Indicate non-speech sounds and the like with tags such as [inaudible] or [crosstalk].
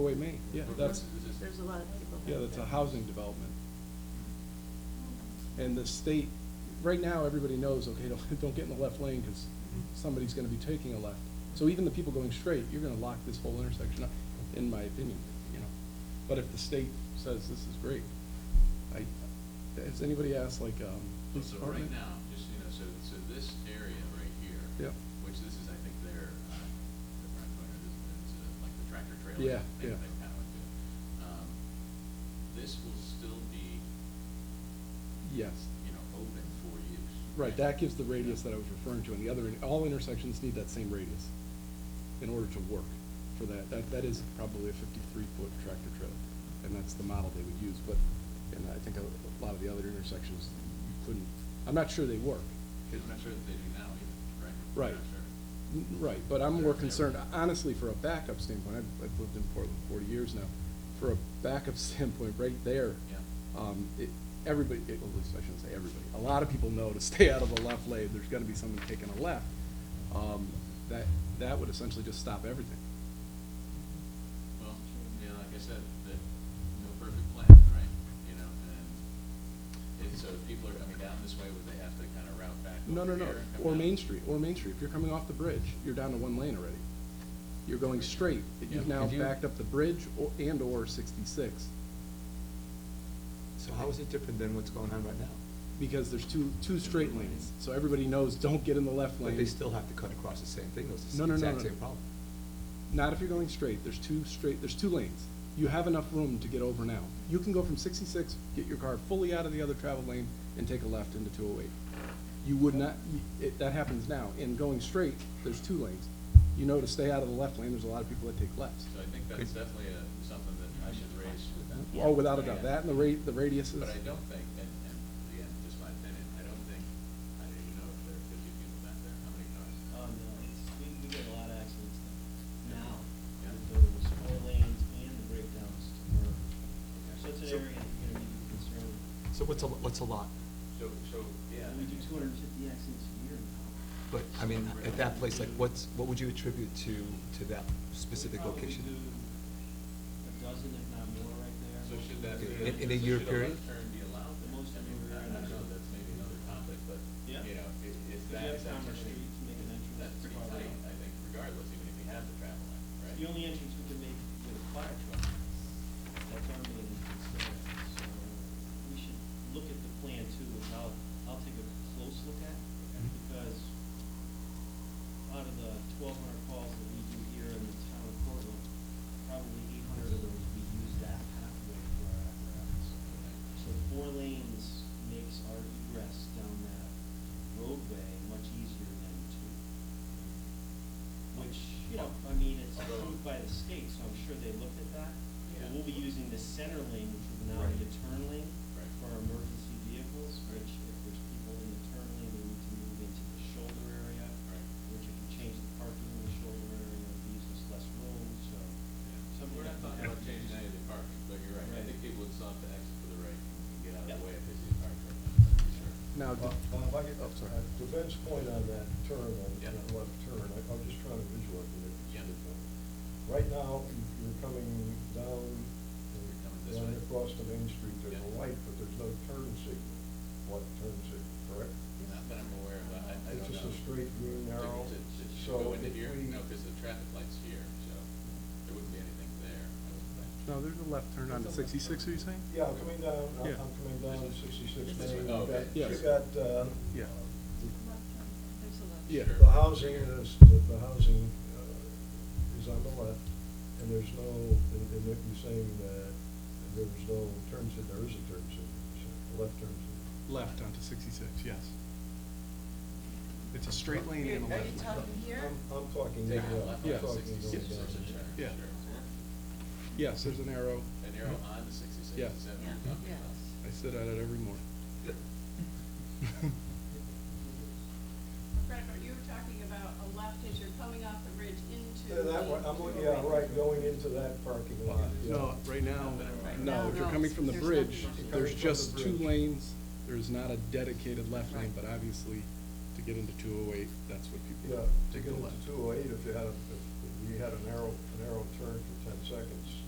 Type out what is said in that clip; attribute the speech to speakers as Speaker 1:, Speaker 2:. Speaker 1: Away Main, yeah, that's,
Speaker 2: There's a lot of people.
Speaker 1: yeah, that's a housing development. And the state, right now, everybody knows, okay, [laughs] don't, don't get in the left lane, because somebody's gonna be taking a left. So even the people going straight, you're gonna lock this whole intersection up, in my opinion, you know. But if the state says this is great, I, has anybody asked, like, um, police
Speaker 3: So right
Speaker 1: department?
Speaker 3: now, just, you know, so, so this area right here.
Speaker 1: Yep.
Speaker 3: Which this is, I think, their, uh, the front corner, this is uh, like the tractor trailer.
Speaker 1: Yeah,
Speaker 3: thing
Speaker 1: yeah.
Speaker 3: They kind of went to. Um, This will still be,
Speaker 1: Yes,
Speaker 3: you know, open for use.
Speaker 1: right, that gives the radius that I was referring to, and the other, all intersections need that same radius in order to work for that. That, that is probably a fifty-three foot tractor trailer, and that's the model they would use, but, and I think a lot of the other intersections, you couldn't, I'm not sure they work.
Speaker 3: Because I'm not sure that they do now either, right? I'm
Speaker 1: Right.
Speaker 3: not sure.
Speaker 1: N- Mm, Right, but I'm more concerned, honestly, for a backup standpoint, I've, I've lived in Portland forty years now, for a backup [laughs] standpoint, right there.
Speaker 3: Yeah.
Speaker 1: Um, it, everybody, it- well, at least I shouldn't say everybody, a lot of people know to [laughs] stay out of the left lane, there's gonna be someone taking a left. Um, that, that would essentially just stop everything.
Speaker 3: Well, yeah, like I said, that, no perfect plan, right? You know, and if, so if people are coming down this way, would they have to kind of route back
Speaker 1: No, no,
Speaker 3: over
Speaker 1: no,
Speaker 3: here? and come
Speaker 1: or
Speaker 3: down?
Speaker 1: Main Street, or Main Street, if you're coming off the bridge, you're down to one lane already. You're going straight, you've
Speaker 4: Yeah,
Speaker 1: now
Speaker 4: could you-
Speaker 1: backed up the bridge or, and/or sixty-six.
Speaker 4: So how is it different than what's going on right now?
Speaker 1: because there's two, two straight lanes, so everybody knows, don't get in the left lane.
Speaker 4: But they still have to cut across the same thing, it's
Speaker 1: No, no,
Speaker 4: the
Speaker 1: no,
Speaker 4: exact
Speaker 1: no.
Speaker 4: same problem.
Speaker 1: Not if you're going straight, there's two straight, there's two lanes. You have enough room to get over now. You can go from sixty-six, get your car fully out of the other travel lane, and take a left into two oh eight. You would not, you- it, that happens now, and going straight, there's two lanes. You know to stay out of the left lane, there's a lot of people that take lefts.
Speaker 3: So I think that's definitely a, something that I should raise with them.
Speaker 1: Oh, without a doubt,
Speaker 3: And-
Speaker 1: that and the rate, the radiuses.
Speaker 3: But I don't think, and, and again, just my opinion, I don't think, I don't even know if there are fifty people back there, how many cars?
Speaker 5: Oh, no, it's, we, we get a lot of accidents now,
Speaker 3: Yeah.
Speaker 5: with those four lanes and the breakdowns to merge. So it's
Speaker 4: So-
Speaker 5: an area you're gonna need to be concerned with.
Speaker 4: So what's a, what's a lot?
Speaker 3: So, so, yeah.
Speaker 5: We do two hundred and fifty accidents a year now.
Speaker 4: But, I mean, at that place, like, what's, what would you attribute to, to that specific
Speaker 5: Probably
Speaker 4: location?
Speaker 5: do A dozen, if not more, right there.
Speaker 3: So should that be?
Speaker 4: In- in a
Speaker 3: so
Speaker 4: year
Speaker 3: should
Speaker 4: period?
Speaker 3: left turn be allowed then?
Speaker 5: Most
Speaker 3: I
Speaker 5: of
Speaker 3: mean,
Speaker 5: them are
Speaker 3: I don't know,
Speaker 5: actually-
Speaker 3: that's maybe another topic, but,
Speaker 5: Yeah.
Speaker 3: you know, if, if
Speaker 5: If you
Speaker 3: that
Speaker 5: have
Speaker 3: is
Speaker 5: Commerce
Speaker 3: actually,
Speaker 5: Street to make an entrance,
Speaker 3: that's
Speaker 5: it's
Speaker 3: pretty
Speaker 5: far
Speaker 3: tight,
Speaker 5: enough.
Speaker 3: I think, regardless, even if you have the travel lane, right?
Speaker 5: The only entrance we can make with a fire truck, that's our main entrance there, so we should look at the plan too, and I'll, I'll take a close look at,
Speaker 3: Okay.
Speaker 4: Mm-hmm.
Speaker 5: because out of the twelve hundred calls that we do here in the town of Portland, probably eight hundred of those, we use that pathway for our apparatus. So four lanes makes our egress down that roadway much easier than two. Which, you know, I mean, it's approved by the state, so I'm sure they looked at that.
Speaker 3: Yeah.
Speaker 5: But we'll be using the center lane, which is now
Speaker 3: Right.
Speaker 5: the turn lane
Speaker 3: Right.
Speaker 5: for our emergency vehicles, which if there's people in the turn lane, they need to move into the shoulder area.
Speaker 3: Right.
Speaker 5: Which if you change the parking in the shoulder area, it leaves us less room, so.
Speaker 3: Yeah.
Speaker 5: something
Speaker 3: We're not
Speaker 5: like
Speaker 3: talking
Speaker 5: that.
Speaker 3: about changing any of the parking, but you're right, I
Speaker 5: Right.
Speaker 3: think people would stop to exit to the right and get out of the
Speaker 5: Yeah.
Speaker 3: way if they see a car coming, that's for sure.
Speaker 1: Now,
Speaker 6: Bob, Bob, I get,
Speaker 1: Oh, sorry.
Speaker 6: uh, to Ben's point on that turn, on
Speaker 3: Yeah.
Speaker 6: that left turn, I, I'm just trying to visualize it.
Speaker 3: Yeah.
Speaker 6: Right now, you- you're coming down,
Speaker 3: You're coming this
Speaker 6: down
Speaker 3: way.
Speaker 6: across the main street, there's a
Speaker 3: Yeah.
Speaker 6: light, but there's no turn signal, what turn signal, correct?
Speaker 3: Not that I'm aware of, I, I
Speaker 6: It's
Speaker 3: don't know.
Speaker 6: just a straight green arrow,
Speaker 3: To- to- to
Speaker 6: so
Speaker 3: go into
Speaker 6: if
Speaker 3: here,
Speaker 6: we-
Speaker 3: no, because the traffic light's here, so there wouldn't be anything there, I wouldn't think.
Speaker 1: No, there's a left turn on sixty-six, are you saying?
Speaker 6: Yeah, I'm coming down, I'm,
Speaker 1: Yeah.
Speaker 6: I'm coming down sixty-six
Speaker 3: This way.
Speaker 6: main, you
Speaker 3: Oh, okay.
Speaker 6: got, you
Speaker 1: Yes.
Speaker 6: got, uh,
Speaker 1: Yeah.
Speaker 2: There's a lot.
Speaker 1: Yeah.
Speaker 3: Sure.
Speaker 6: The housing is, the housing uh, is on the left, and there's no, and and if you're saying that there's no turn sig, there is a turn signal, so a left turn signal.
Speaker 1: Left onto sixty-six, yes. It's a straight lane and a
Speaker 2: Are
Speaker 1: left
Speaker 2: you
Speaker 1: lane.
Speaker 2: talking here?
Speaker 6: I'm, I'm talking,
Speaker 3: Take a
Speaker 6: yeah,
Speaker 3: left
Speaker 1: Yeah.
Speaker 6: I'm
Speaker 3: on
Speaker 6: talking.
Speaker 3: sixty-six,
Speaker 1: Yeah.
Speaker 6: going
Speaker 3: there's a
Speaker 6: down.
Speaker 3: turn,
Speaker 1: Yeah.
Speaker 3: sure.
Speaker 1: Yes, there's an arrow.
Speaker 3: An arrow on the sixty-six,
Speaker 1: Yeah.
Speaker 3: is that what
Speaker 2: Yeah.
Speaker 3: you're talking
Speaker 2: Yes.
Speaker 3: about?
Speaker 1: I sit at it every morning.
Speaker 4: [laughs]
Speaker 7: Fred, are you talking about a left as you're coming off the bridge into?
Speaker 6: Yeah, that one, I'm, looking- yeah, right, going into that parking lot. yeah.
Speaker 1: No, right now, no,
Speaker 2: No,
Speaker 1: if you're
Speaker 2: no,
Speaker 1: coming from the
Speaker 2: there's
Speaker 1: bridge,
Speaker 2: nothing
Speaker 6: left.
Speaker 1: there's
Speaker 6: Coming from
Speaker 1: just
Speaker 6: the
Speaker 1: two
Speaker 6: bridge.
Speaker 1: lanes, there's not a dedicated left lane,
Speaker 2: Right.
Speaker 1: but obviously, to get into two oh eight, that's what
Speaker 6: Yeah,
Speaker 1: people
Speaker 6: to
Speaker 1: take
Speaker 6: get
Speaker 1: a
Speaker 6: into
Speaker 1: left.
Speaker 6: two oh eight, if you had, a- if you had a narrow, a narrow turn for ten seconds,